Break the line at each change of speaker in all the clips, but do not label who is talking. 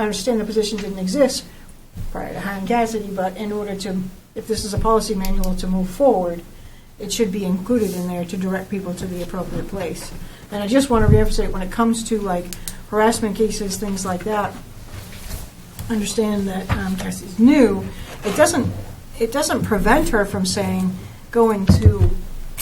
I understand the position didn't exist prior to hiring Cassidy, but in order to, if this is a policy manual to move forward, it should be included in there to direct people to the appropriate place. And I just want to reemphasize, when it comes to like harassment cases, things like that, understand that um, Cassie's new, it doesn't, it doesn't prevent her from saying, going to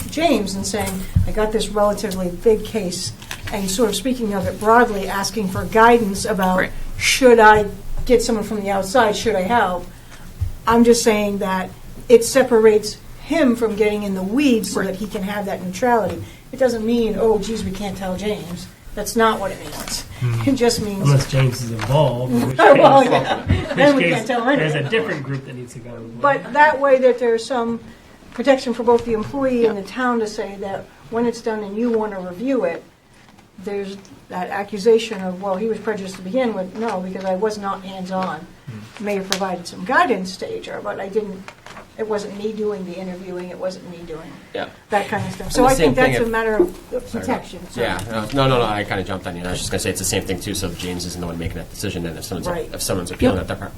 James and saying, I got this relatively big case, and sort of speaking of it broadly, asking for guidance about,
Right.
should I get someone from the outside, should I help? I'm just saying that it separates him from getting in the weeds so that he can have that neutrality. It doesn't mean, oh geez, we can't tell James. That's not what it means. It just means,
Unless James is involved, in which
Oh,
case,
well, yeah, then
which
we
case
can't tell him anything.
there's a different group that needs to go. involved.
But that way that there's some protection for both the employee and the town to say that when it's done and you want to review it, there's that accusation of, well, he was prejudiced to begin with. No, because I was not hands-on.
Hmm.
May have provided some guidance to HR, but I didn't, it wasn't me doing the interviewing, it wasn't me doing
Yeah.
that kind of stuff.
And
So
the
I think
same thing
that's a
if-
matter of protection. so-
Yeah, no, no, no, I kind of jumped on you. I was just going to say it's the same thing too. So if James isn't the one making that decision, and if someone's
Right.
if someone's appealing that, part,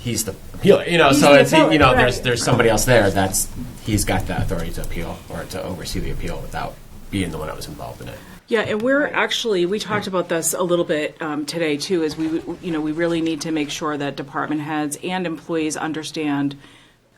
he's the appealer. You know,
He's
so
the
it's you know,
appellate,
there's
right.
there's somebody else there that's he's got the authority to appeal or to oversee the appeal without being the one that was involved in it.
Yeah, and we're actually, we talked about this a little bit um, today too, is we, you know, we really need to make sure that department heads and employees understand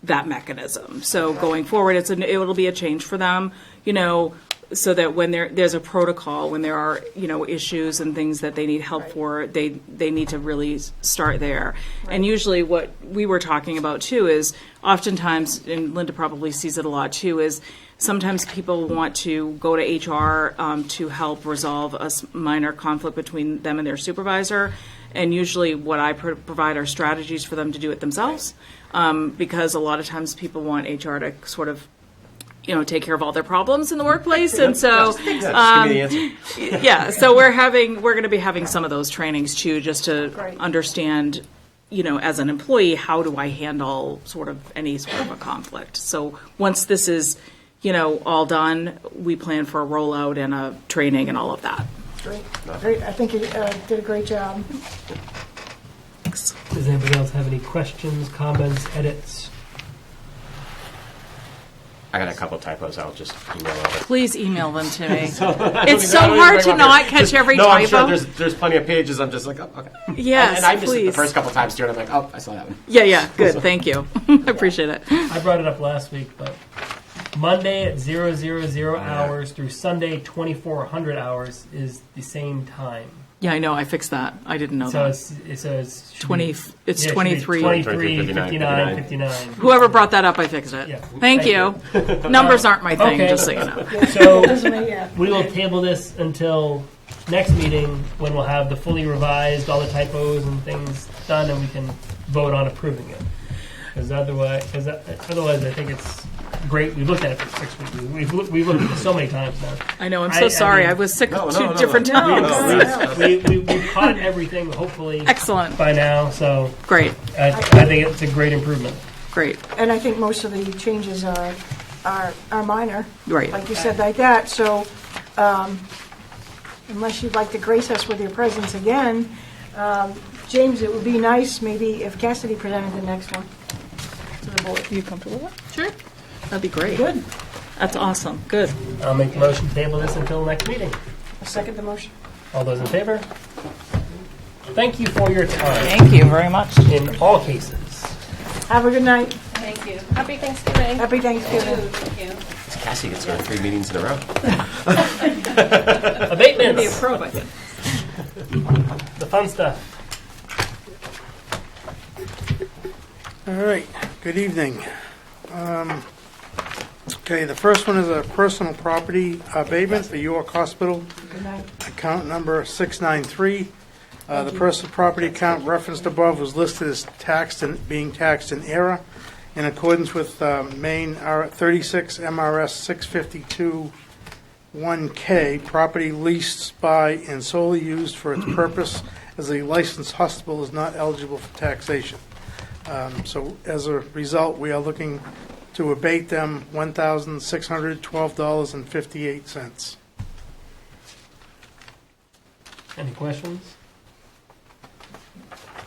that mechanism. So going forward, it's, an it'll be a change for them, you know, so that when there, there's a protocol, when there are, you know, issues and things that they need help
Right.
for, they, they need to really s- start there. And usually what we were talking about too is oftentimes, and Linda probably sees it a lot too, is sometimes people want to go to HR um, to help resolve a s- minor conflict between them and their supervisor. And usually, what I pro- provide are strategies for them to do it themselves, um, because a lot of times people want HR to sort of, you know, take care of all their problems in the workplace, and so um,
just give me the answer.
yeah so we're having we're going to be having some of those trainings too just to
Great.
understand you know as an employee how do i handle sort of any sort of a conflict so once this is you know all done we plan for a rollout and a training and all of that
Great, great. I think you uh, did a great job.
Does anybody else have any questions, comments, edits?
I got a couple typos. I'll just email over.
please email them to me it's so hard to not catch every
No, I'm
typo
sure there's there's plenty of pages. I'm just like, oh, okay.
yes
and I missed
please
it the first couple times too, and I'm like, oh, I saw that one.
yeah yeah good thank you i appreciate it
I brought it up last week, but Monday at zero zero zero hours through Sunday twenty four hundred hours is the same time.
yeah i know i fixed that i didn't know
So
that
it's it says should be-
20 it's
yeah, it should be
23
23,
59,
59, 59.
Whoever brought that up, I fixed it.
Yeah.
Thank you. Numbers aren't my thing,
Okay.
just so you know.
So
Doesn't it? Yeah.
We will table this until next meeting when we'll have the fully revised, all the typos and things done, and we can vote on approving it. Because otherwise, because uh, otherwise, I think it's great. We've looked at it for six weeks. We've- We've, looked- we've looked at it so many times now.
I know, I'm
I-
so
I
sorry.
mean-
I was sick
No,
two
no, no,
different
no.
times.
No, no, no.
We, we, we've caught everything, hopefully,
Excellent.
by now. So
Great,
I, I think it's a great improvement.
great.
And I think most of the changes are, are, are minor.
Right.
Like you said, like that, so, um, unless you'd like to grace us with your presence again, um, James, it would be nice maybe if Cassidy presented the next one to the board.
You comfortable with that? Sure. That'd be great.
Good.
That's awesome. Good.
I'll make the motion to table this until next meeting.
I Second the motion.
All those in favor? Thank you for your time
Thank you very much.
in all cases.
Have a good night.
Thank you. Happy Thanksgiving.
Happy Thanksgiving.
Thank you.
Cassie gets her three meetings in a row.
Abatements.
pro, I think.
the fun stuff.
All right, good evening. Um, Okay, the first one is a personal property abatement for York Hospital,
Good night.
account number 693. Uh, The personal property account referenced above was listed as taxed and being taxed in error in accordance with uh, Maine R- 36 MRS 652-1K, property leased by and solely used for its purpose as a licensed hospital is not eligible for taxation. Um, So as a result, we are looking to abate them $1,612.58.
Any questions?